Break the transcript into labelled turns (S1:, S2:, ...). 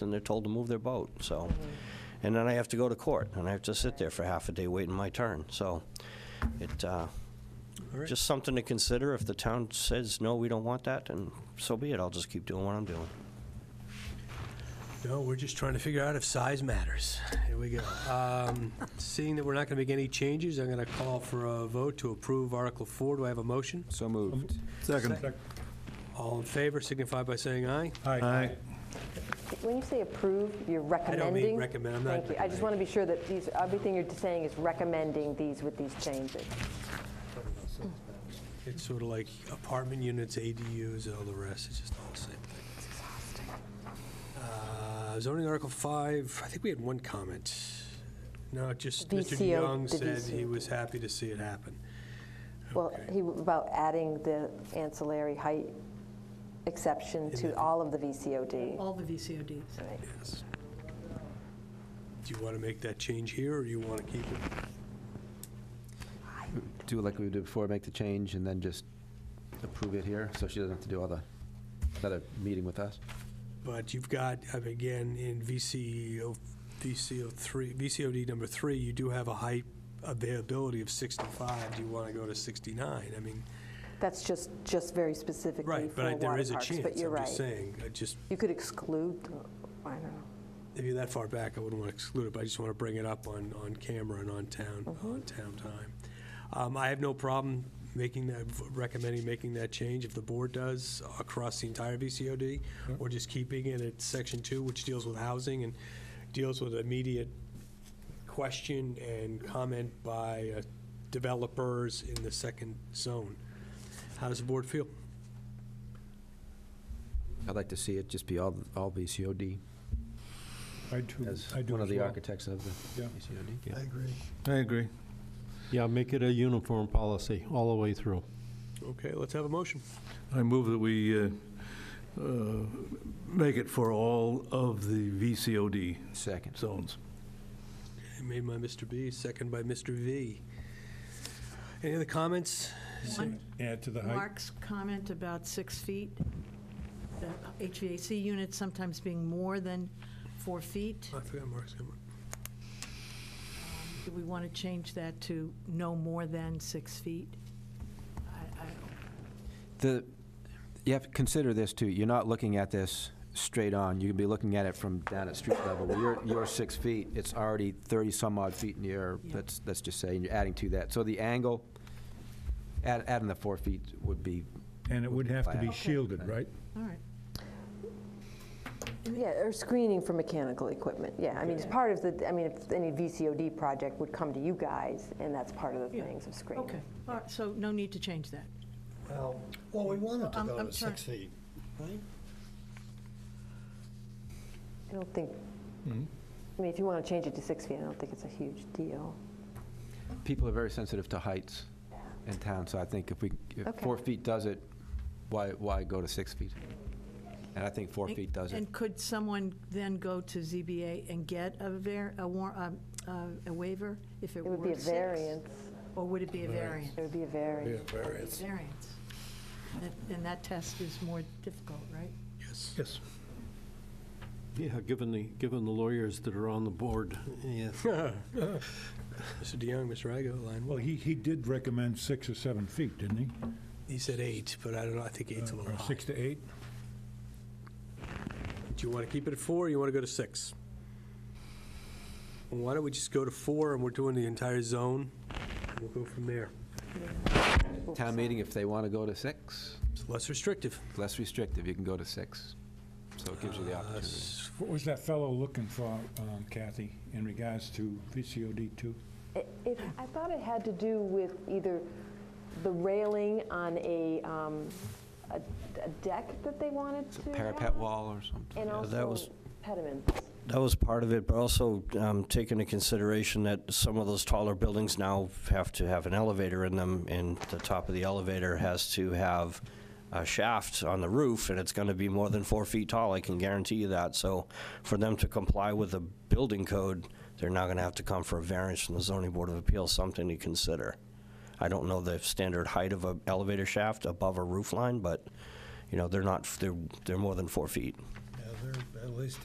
S1: and they're told to move their boat, so. And then I have to go to court, and I have to sit there for half a day waiting my turn, so it, uh,
S2: right.
S1: just something to consider. If the town says, no, we don't want that, then so be it. I'll just keep doing what I'm doing.
S2: No, we're just trying to figure out if size matters. Here we go. Um, Seeing that we're not going to make any changes, I'm going to call for a vote to approve Article 4. Do I have a motion?
S3: So moved.
S4: Second.
S2: All in favor signify by saying aye.
S4: Aye.
S5: When you say approve, you're recommending?
S2: recommend, I'm not
S5: Thank you. I just want to be sure that these, everything you're saying is recommending these with these changes.
S2: It's sort of like apartment units, ADUs, and all the rest, it's just all the same thing. Uh, Zoning Article 5, I think we had one comment. No, just Mr.
S5: VCO,
S2: Young
S5: the
S2: said he
S5: VCO.
S2: was happy to see it happen.
S5: Well,
S2: Okay.
S5: he, about adding the ancillary height exception to all of the VCOD.
S6: All the VCODs.
S2: Yes. Do you want to make that change here, or do you want to keep it?
S3: Do like we did before, make the change and then just approve it here, so she doesn't have to do all the, another meeting with us?
S2: But you've got, uh, again, in VCO, VCO three, VCOD number three, you do have a height availability of 65. Do you want to go to 69? I mean,
S5: That's just, just very specifically
S2: right,
S5: for
S2: but I-
S5: water
S2: there is a
S5: parks, but
S2: chance,
S5: you're
S2: I'm just
S5: right.
S2: saying. I just,
S5: You could exclude, the- I don't know.
S2: if you're that far back, I wouldn't want to exclude it, but I just want to bring it up on, on camera and on town,
S4: Mm-hmm.
S2: on town time. Um, I have no problem making that, recommending making that change if the board does across the entire VCOD, or just keeping it at section two, which deals with housing and deals with immediate question and comment by uh, developers in the second zone. How does the board feel?
S3: I'd like to see it just be all, all VCOD
S4: I do,
S3: as
S4: I do
S3: one of
S4: as
S3: the
S4: well.
S3: architects of the
S4: Yeah.
S3: VCOD.
S4: I agree.
S7: Yeah, make it a uniform policy all the way through.
S2: Okay, let's have a motion.
S4: I move that we uh, uh, make it for all of the VCOD
S3: Second.
S4: zones.
S2: Made by Mr. B, second by Mr. V. Any other comments?
S6: One,
S4: Add to the
S6: Mark's comment about six feet, the HVAC units sometimes being more than four feet.
S2: Oh, I forgot Mark's comment.
S6: Do we want to change that to no more than six feet? I- I don't-
S3: The, you have to consider this too, you're not looking at this straight on, you can be looking at it from down at street level. Well, you're, you're six feet, it's already thirty some odd feet in the air,
S6: Yeah.
S3: let's, let's just say, and you're adding to that. So the angle, add, adding the four feet would be,
S4: And it would have to be shielded, right?
S6: All right.
S5: Yeah, or screening for mechanical equipment, yeah. I mean, it's part of the, I mean, if any VCOD project would come to you guys, and that's part of the
S6: Yeah.
S5: things of screening.
S6: Okay, all right, so no need to change that.
S8: Well, we wanted to
S6: I'm-
S8: go
S6: I'm
S8: to six
S6: sorry.
S8: feet, right?
S5: I don't think, I mean, if you want to change it to six feet, I don't think it's a huge deal.
S3: people are very sensitive to heights in town, so I think if we, if
S5: Okay.
S3: four feet does it, why, why go to six feet? And I think four feet does it.
S6: And could someone then go to ZBA and get a var, a war, um, uh, a waiver if it
S5: It
S6: were
S5: would be a
S6: six?
S5: variance,
S6: Or would it be a variance?
S5: it would be a variance.
S4: variance.
S6: Variance. And- And that test is more difficult, right?
S2: Yes.
S4: Yes.
S7: Yeah, given the, given the lawyers that are on the board.
S2: Yes. Mr. DeYoung, Mr. Igo, line
S9: Well,
S2: one.
S9: he, he did recommend six or seven feet, didn't he?
S2: He said eight, but I don't know, I think eight's a little
S9: Or
S2: high.
S9: six to eight?
S2: Do you want to keep it at four, or you want to go to six? Why don't we just go to four, and we're doing the entire zone? We'll go from there.
S3: Town meeting, if they want to go to six,
S2: It's less restrictive.
S3: less restrictive, you can go to six. So it gives you the opportunity.
S9: What was that fellow looking for, um, Kathy, in regards to VCOD two?
S5: It- it- I thought it had to do with either the railing on a, um, a a deck that they wanted to have.
S3: Parapet wall or something.
S5: And
S1: that was-
S5: also pediments.
S1: That was part of it, but also um, take into consideration that some of those taller buildings now have to have an elevator in them, and the top of the elevator has to have a shaft on the roof, and it's going to be more than four feet tall, I can guarantee you that. So for them to comply with the building code, they're now going to have to come for a variance from the zoning board of appeals, something to consider. I don't know the standard height of an elevator shaft above a roof line, but, you know, they're not, they're, they're more than four feet.
S8: Yeah, they're at least